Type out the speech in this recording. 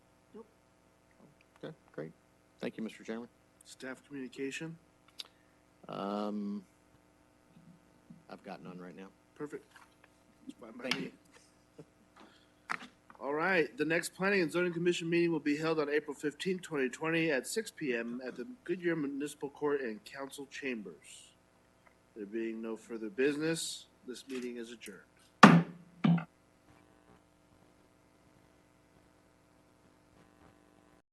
Okay, great. Thank you, Mr. Chairman. Staff communication, Um, I've got none right now. perfect. It's fine by Thank me. you. All right, the next planning and zoning commission meeting will be held on April fifteenth, twenty twenty, at six P M at the Goodyear Municipal Court and Council Chambers. There being no further business, this meeting is adjourned.